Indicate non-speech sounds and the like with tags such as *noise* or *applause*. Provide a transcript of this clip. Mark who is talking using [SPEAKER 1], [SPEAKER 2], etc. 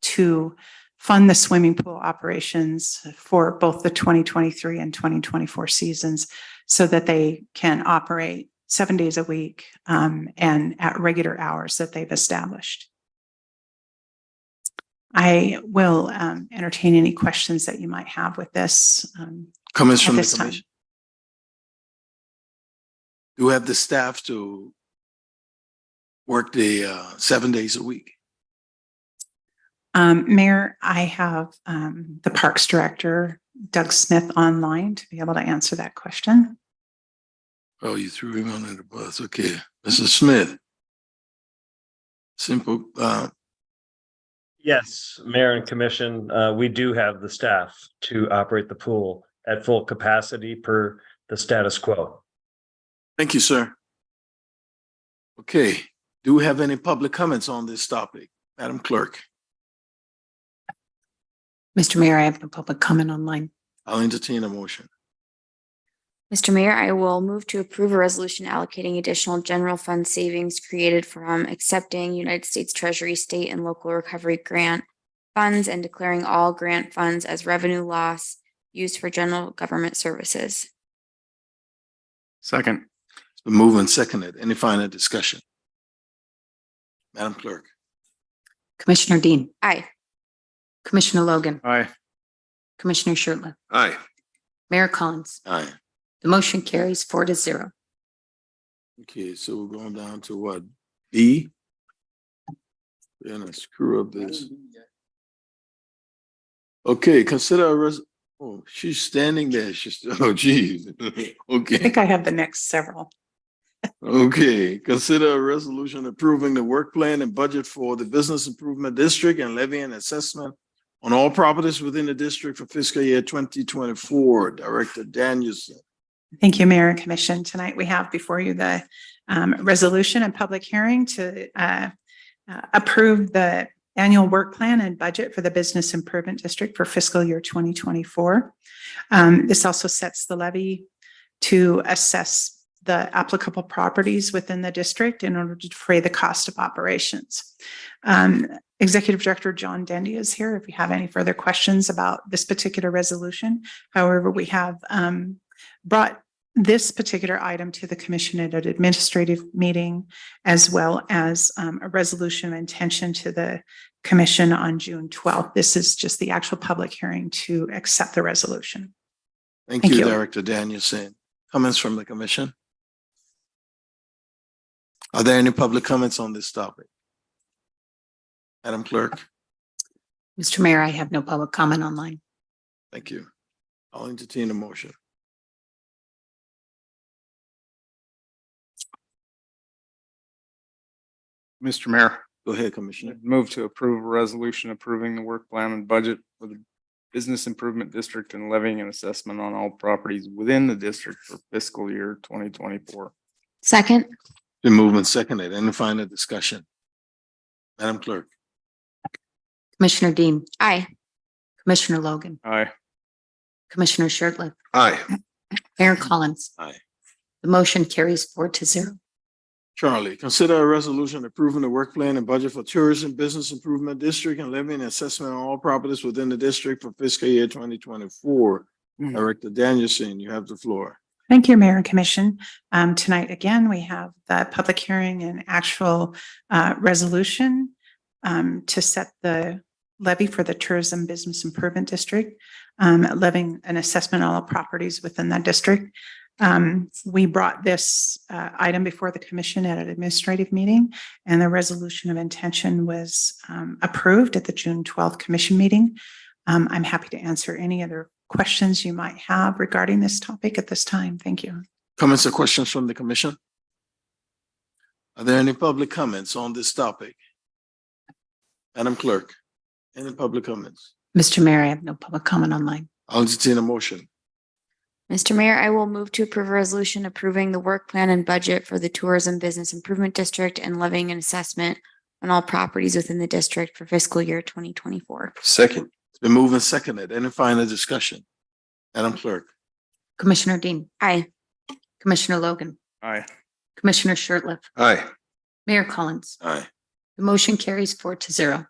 [SPEAKER 1] to fund the swimming pool operations for both the 2023 and 2024 seasons so that they can operate seven days a week um, and at regular hours that they've established. I will um, entertain any questions that you might have with this. um,
[SPEAKER 2] Comments
[SPEAKER 1] At
[SPEAKER 2] from the
[SPEAKER 1] this time.
[SPEAKER 2] commission? Do we have the staff to work the uh, seven days a week?
[SPEAKER 1] Um, Mayor, I have um, the Parks Director, Doug Smith, online to be able to answer that question.
[SPEAKER 2] Oh, you threw him under the bus. Okay, Mrs. Smith. Simple, uh,
[SPEAKER 3] Yes, Mayor and Commission, uh, we do have the staff to operate the pool at full capacity per the status quo.
[SPEAKER 2] thank you, sir. Okay, do we have any public comments on this topic? Madam Clerk,
[SPEAKER 4] Mr. Mayor, I have a public comment online.
[SPEAKER 2] I'll entertain a motion.
[SPEAKER 5] Mr. Mayor, I will move to approve a resolution allocating additional general fund savings created from accepting United States Treasury State and Local Recovery Grant funds and declaring all grant funds as revenue loss used for general government services.
[SPEAKER 6] Second.
[SPEAKER 2] It's been moved and seconded. Any final discussion? Madam Clerk,
[SPEAKER 4] Commissioner Dean,
[SPEAKER 5] Aye.
[SPEAKER 4] Commissioner Logan,
[SPEAKER 6] Aye.
[SPEAKER 4] Commissioner Shertliff,
[SPEAKER 7] Aye.
[SPEAKER 4] Mayor Collins.
[SPEAKER 2] aye.
[SPEAKER 4] The motion carries four to zero.
[SPEAKER 2] Okay, so we're going down to what, B? Then I screw up this. Okay, consider a res, oh, she's standing there, she's, *laughs* oh geez.
[SPEAKER 1] I
[SPEAKER 2] Okay,
[SPEAKER 1] think I have the next several.
[SPEAKER 2] okay, consider a resolution approving the work plan and budget for the Business Improvement District and levy and assessment on all properties within the district for fiscal year twenty twenty-four, Director Danielson.
[SPEAKER 1] Thank you, Mayor and Commission. Tonight we have before you the um, resolution and public hearing to uh, uh, approve the annual work plan and budget for the Business Improvement District for fiscal year 2024. Um, This also sets the levy to assess the applicable properties within the district in order to defray the cost of operations. Um, Executive Director John Dendy is here if you have any further questions about this particular resolution. However, we have um, brought this particular item to the commission at an administrative meeting as well as um, a resolution of intention to the commission on June 12th. This is just the actual public hearing to accept the resolution.
[SPEAKER 2] Thank
[SPEAKER 1] Thank
[SPEAKER 2] you,
[SPEAKER 1] you.
[SPEAKER 2] Director Danielson. Comments from the commission? Are there any public comments on this topic? Madam Clerk,
[SPEAKER 4] Mr. Mayor, I have no public comment online.
[SPEAKER 2] thank you. I'll entertain a motion.
[SPEAKER 6] Mr. Mayor,
[SPEAKER 2] Go ahead, Commissioner.
[SPEAKER 6] move to approve a resolution approving the work plan and budget for the Business Improvement District and levying an assessment on all properties within the district for fiscal year twenty twenty-four.
[SPEAKER 5] Second.
[SPEAKER 2] The movement seconded. Any final discussion? Madam Clerk,
[SPEAKER 4] Commissioner Dean,
[SPEAKER 5] Aye.
[SPEAKER 4] Commissioner Logan,
[SPEAKER 6] Aye.
[SPEAKER 4] Commissioner Shertliff,
[SPEAKER 7] Aye.
[SPEAKER 4] Mayor Collins.
[SPEAKER 2] Aye.
[SPEAKER 4] The motion carries four to zero.
[SPEAKER 2] Charlie, consider a resolution approving the work plan and budget for Tourism Business Improvement District and levying assessment on all properties within the district for fiscal year twenty twenty-four.
[SPEAKER 6] Mhm.
[SPEAKER 2] Director Danielson, you have the floor.
[SPEAKER 1] Thank you, Mayor and Commission. Um, tonight, again, we have the public hearing and actual, uh, resolution, um, to set the levy for the Tourism Business Improvement District, um, levying an assessment on all properties within that district. Um, we brought this, uh, item before the commission at an administrative meeting, and the resolution of intention was, um, approved at the June twelfth commission meeting. Um, I'm happy to answer any other questions you might have regarding this topic at this time. Thank you.
[SPEAKER 2] Comments or questions from the commission? Are there any public comments on this topic? Madam Clerk, any public comments?
[SPEAKER 4] Mr. Mayor, I have no public comment online.
[SPEAKER 2] I'll entertain a motion.
[SPEAKER 5] Mr. Mayor, I will move to approve a resolution approving the work plan and budget for the Tourism Business Improvement District and levying an assessment on all properties within the district for fiscal year twenty twenty-four.
[SPEAKER 7] Second.
[SPEAKER 2] It's been moved and seconded. Any final discussion? Madam Clerk,
[SPEAKER 4] Commissioner Dean,
[SPEAKER 5] Aye.
[SPEAKER 4] Commissioner Logan,
[SPEAKER 6] Aye.
[SPEAKER 4] Commissioner Shertliff,
[SPEAKER 7] Aye.
[SPEAKER 4] Mayor Collins.
[SPEAKER 2] aye.
[SPEAKER 4] The motion carries four to zero.